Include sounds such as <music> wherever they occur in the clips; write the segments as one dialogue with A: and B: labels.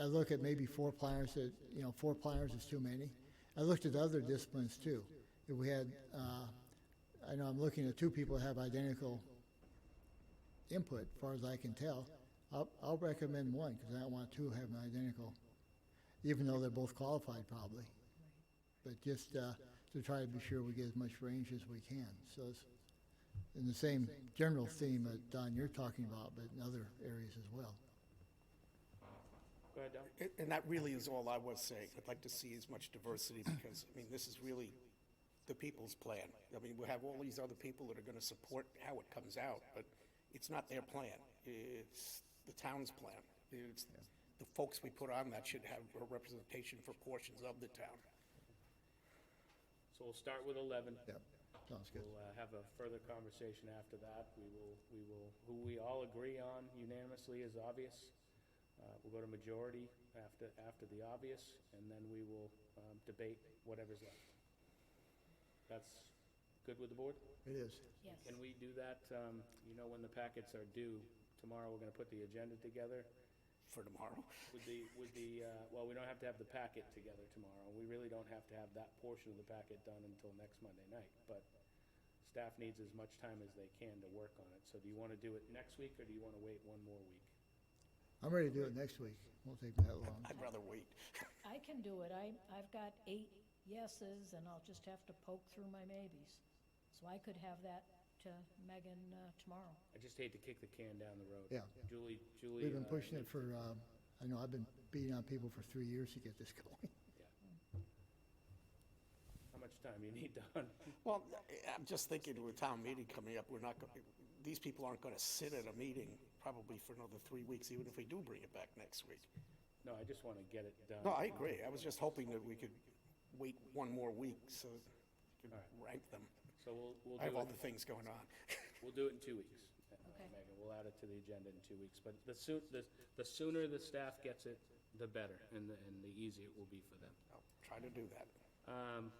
A: I look at maybe four pliers, that, you know, four pliers is too many. I looked at other disciplines too. If we had, uh, I know I'm looking at two people that have identical input, as far as I can tell. I'll, I'll recommend one, because I don't want two having identical, even though they're both qualified probably. But just, uh, to try to be sure we get as much range as we can, so it's in the same general theme that Don, you're talking about, but in other areas as well.
B: Go ahead, Don.
C: And- And that really is all I was saying. I'd like to see as much diversity because, I mean, this is really the people's plan. I mean, we have all these other people that are going to support how it comes out, but it's not their plan. It's the town's plan. It's, the folks we put on that should have a representation for portions of the town.
B: So we'll start with eleven.
A: Yep, sounds good.
B: We'll uh, have a further conversation after that. We will, we will, who we all agree on unanimously is obvious. Uh, We'll go to majority after, after the obvious, and then we will um, debate whatever's left. That's good with the board?
A: It is.
D: Yes.
B: Can we do that, um, you know, when the packets are due? Tomorrow, we're gonna put the agenda together
C: For tomorrow. <laughs>
B: with the, with the, uh, well, we don't have to have the packet together tomorrow. We really don't have to have that portion of the packet done until next Monday night, but staff needs as much time as they can to work on it. So do you wanna do it next week, or do you wanna wait one more week?
A: I'm ready to do it next week. Won't take that long.
C: I'd rather wait.
D: I can do it. I, I've got eight yeses, and I'll just have to poke through my maybes. So I could have that to Megan uh, tomorrow.
B: I just hate to kick the can down the road.
A: Yeah.
B: Julie, Julie.
A: We've been
B: uh,
A: pushing it for, um, I know I've been beating on people for three years to get this <laughs> going.
B: How much time you need, <laughs> Don?
C: Well, I- I'm just thinking with town meeting coming up, we're not, go- these people aren't going to sit at a meeting probably for another three weeks, even if we do bring it back next week.
B: No, I just wanna get it done.
C: No, I agree. I was just hoping that we could wait one more week so we could rank them.
B: So we'll, we'll do
C: I
B: it.
C: have other things going on. <laughs>
B: We'll do it in two weeks. uh,
D: Okay.
B: Megan, we'll add it to the agenda in two weeks, but the soon, the, the sooner the staff gets it, the better, and the, and the easier it will be for them.
C: I'll try to do that.
B: Um,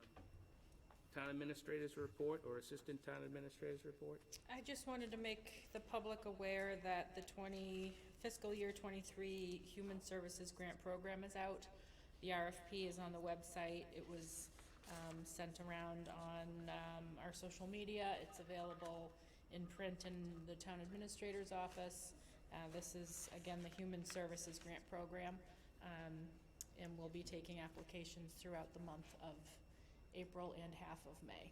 B: town administrators report or assistant town administrators report?
E: I just wanted to make the public aware that the 20, fiscal year 23 Human Services Grant Program is out. The RFP is on the website. It was um, sent around on um, our social media. It's available in print in the town administrator's office. Uh, This is, again, the Human Services Grant Program, um, and we'll be taking applications throughout the month of April and half of May.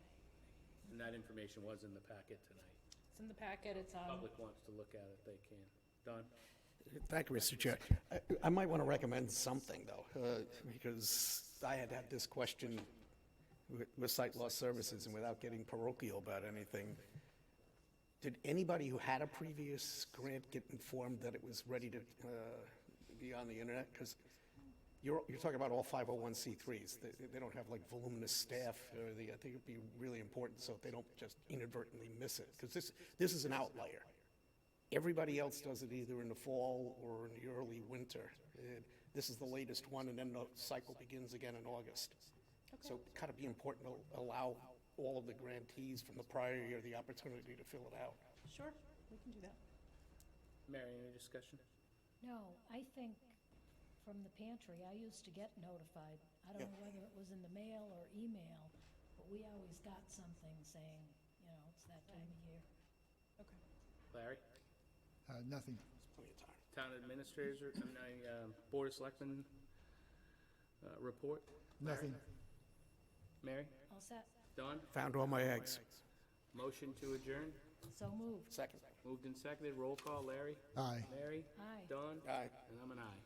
B: And that information was in the packet tonight.
E: It's in the packet. It's on.
B: Public wants to look at it, they can. Don?
C: Thank you, Mr. Chair. I- I might want to recommend something, though, uh, because I had had this question with- with Site Law Services, and without getting parochial about anything, did anybody who had a previous grant get informed that it was ready to uh, be on the internet? Because you're, you're talking about all 501c3s. They, they don't have like voluminous staff or the, I think it'd be really important so they don't just inadvertently miss it. Because this, this is an outlier. Everybody else does it either in the fall or in the early winter. And This is the latest one and then the cycle begins again in August. So it kind of be important to allow all of the grantees from the prior year the opportunity to fill it out.
E: Sure, we can do that.
B: Mary, any discussion?
D: No, I think from the pantry, I used to get notified. I don't
C: Yeah.
D: know whether it was in the mail or email, but we always got something saying, you know, it's that time of year.
E: Okay.
B: Larry?
A: Uh, nothing.
C: There's plenty of time.
B: Town administrators, re- I mean, I, um, Board of Selectmen, uh, report? Larry?
A: Nothing.
B: Mary?
D: All set?
B: Don?
C: Found all my eggs.
B: Motion to adjourn?
D: So moved.
C: Second.
B: Moved and seconded, roll call, Larry?
A: Aye.
B: Mary?
D: Aye.
B: Don?
C: Aye.
B: And I'm an aye.